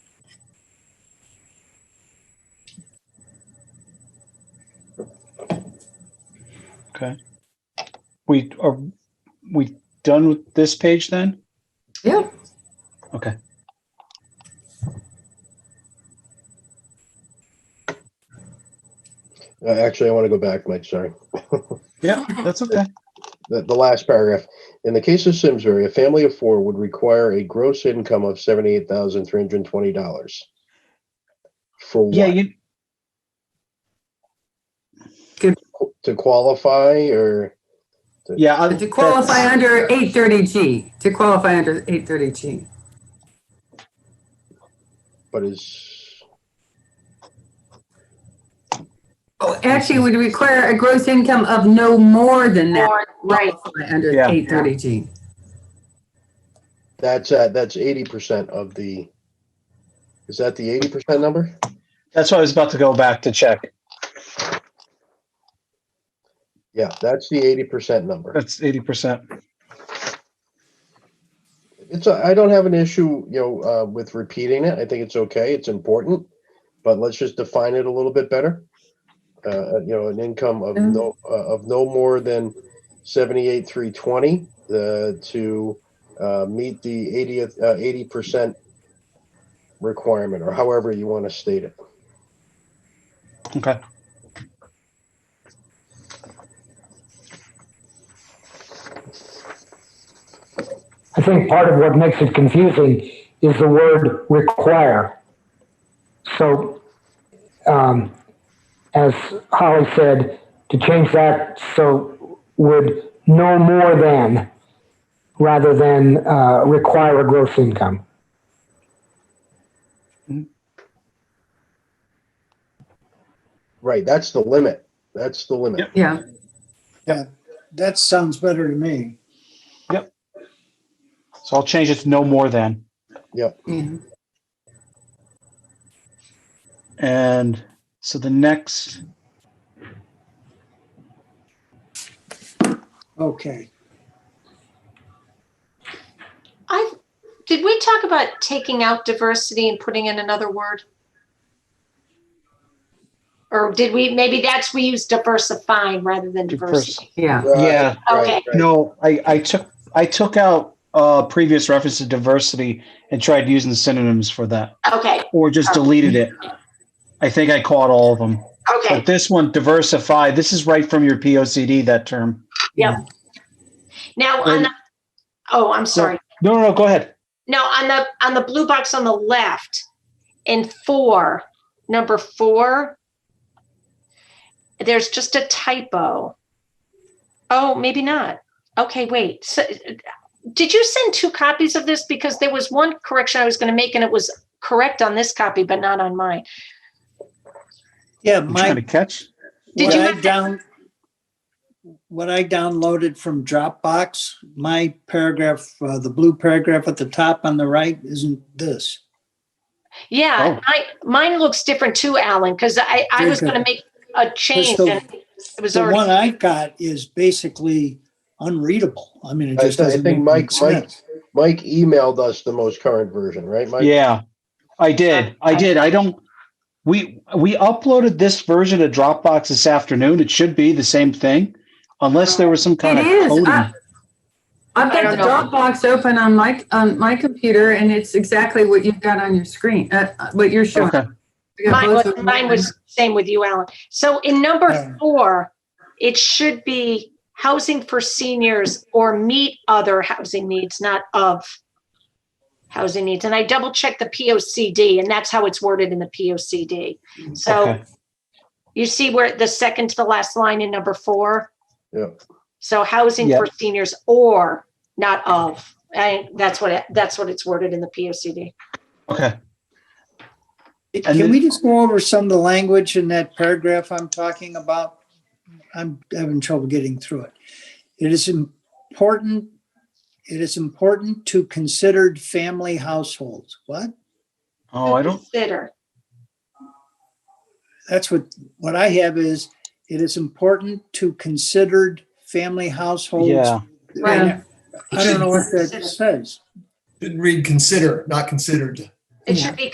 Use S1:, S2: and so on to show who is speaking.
S1: Okay. We, are we done with this page then?
S2: Yeah.
S1: Okay.
S3: Uh, Actually, I want to go back, Mike, sorry.
S1: Yeah, that's okay.
S3: The, the last paragraph. In the case of Simsbury, a family of four would require a gross income of seventy-eight thousand three hundred and twenty dollars. For
S1: Yeah,
S3: what?
S1: you,
S3: To qualify or,
S1: yeah. I-
S2: But To qualify
S1: that's-
S2: under 830G, to qualify under 830G.
S3: but is,
S2: Oh, Actually, it would require a gross income of no more than that.
S4: Or, right,
S2: to qualify Under
S1: Yeah.
S2: 830G.
S3: that's, uh, that's eighty percent of the, is that the eighty percent number?
S1: That's why I was about to go back to check.
S3: Yeah, that's the eighty percent number.
S1: That's eighty percent.
S3: It's, a- I don't have an issue, you know, uh, with repeating it. I think it's okay. It's important. But let's just define it a little bit better. Uh, you know, an income of
S2: Mm.
S3: no, uh, of no more than seventy-eight, three twenty, uh, to, uh, meet the eightieth, uh, eighty percent requirement, or however you want to state it.
S1: Okay.
S5: I think part of what makes it confusing is the word require. So, um, as Holly said, to change that so would no more than rather than uh, require a gross income.
S3: Right, that's the limit. That's the limit.
S2: Yeah,
S6: That sounds better to me.
S1: So I'll change it to no more than,
S2: yeah.
S1: and so the next,
S6: Okay.
S4: I, did we talk about taking out diversity and putting in another word? Or did we, maybe that's, we use diversifying rather than diversity.
S2: yeah.
S3: Right,
S1: yeah,
S3: right,
S4: Okay.
S3: right.
S1: no, I, I took, I took out, uh, previous reference to diversity and tried using synonyms for that,
S4: Okay,
S1: or just deleted it. I think I caught all of them,
S4: okay.
S1: but this one, diversify, this is right from your P O C D, that term.
S4: Now, on the, oh, I'm sorry.
S1: No, no, no, go ahead.
S4: Now, on the, on the blue box on the left, in four, number four, there's just a typo. Oh, maybe not. Okay, wait. So, did you send two copies of this? Because there was one correction I was going to make and it was correct on this copy, but not on mine.
S6: Yeah,
S1: I'm trying to
S6: my,
S1: catch.
S4: Did
S6: what
S4: you
S6: I
S4: have that-
S6: down, what I downloaded from Dropbox, my paragraph, uh, the blue paragraph at the top on the right isn't this.
S4: Yeah,
S1: Oh.
S4: I, mine looks different too, Alan, because I, I was going to make a change
S6: the-
S4: and it was
S6: The one
S4: already,
S6: I got is basically unreadable. I mean, it
S3: I
S6: just
S3: th- I
S6: doesn't
S3: think
S6: make
S3: Mike-
S6: much sense.
S3: Mike emailed us the most current version, right, Mike?
S1: Yeah, I did. I did. I don't, we, we uploaded this version to Dropbox this afternoon. It should be the same thing unless there was some kind
S2: It
S1: of
S2: is.
S1: coding.
S2: I- I've
S4: I
S2: got the
S4: don't
S2: Dropbox open on my, on my computer and it's exactly what you've got on your screen, uh, uh, what you're showing.
S1: Okay,
S2: We got
S4: mine
S2: both
S4: was,
S2: of them
S4: mine
S2: open.
S4: was same with you, Alan. So in number
S6: Yeah.
S4: four, it should be housing for seniors or meet other housing needs, not of housing needs. And I double checked the P O C D and that's how it's worded in the P O C D. So
S1: okay.
S4: you see where the second to the last line in number four?
S3: Yeah.
S4: So housing
S1: Yeah.
S4: for seniors or not of, I, that's what, it- that's what it's worded in the P O C D.
S1: Okay. And
S6: Can
S1: then-
S6: we just go over some of the language in that paragraph I'm talking about? I'm having trouble getting through it. It is important, it is important to considered family households. What?
S1: Oh, I don't,
S4: Consider.
S6: That's what, what I have is, it is important to considered family households.
S1: yeah.
S6: And I don't know what that says.
S7: Didn't read consider, not considered.
S4: It
S2: Yeah.
S4: should be